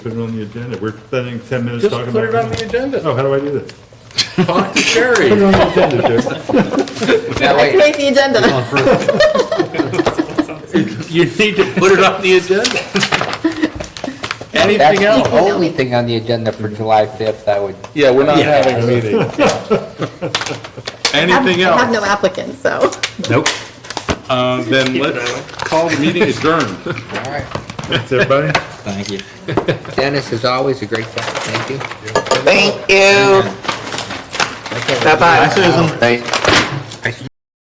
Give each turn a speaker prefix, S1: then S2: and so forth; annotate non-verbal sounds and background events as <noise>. S1: Put it on the agenda. We're spending 10 minutes
S2: Just
S1: talking about.
S2: put it on the agenda.
S1: Oh, how do I do this?
S2: Talk
S1: <laughs>
S2: to Sherry.
S1: Put it on the agenda, <laughs> Dick.
S3: I create the agenda.
S2: You need to put it on the agenda.
S4: That's
S2: Anything
S4: the
S2: else?
S4: only thing on the agenda for July 5th, I would,
S2: Yeah, we're not having a meeting.
S3: I have-
S2: Anything
S3: I have no
S2: else?
S3: applicants, so.
S2: Nope. Uh, Then let's call the meeting adjourned.
S4: all right.
S1: Thanks, everybody.
S5: Thank you.
S4: Dennis, as always, a great guy, thank you.
S6: Thank you.
S4: Okay.
S6: Bye-bye.
S4: All right.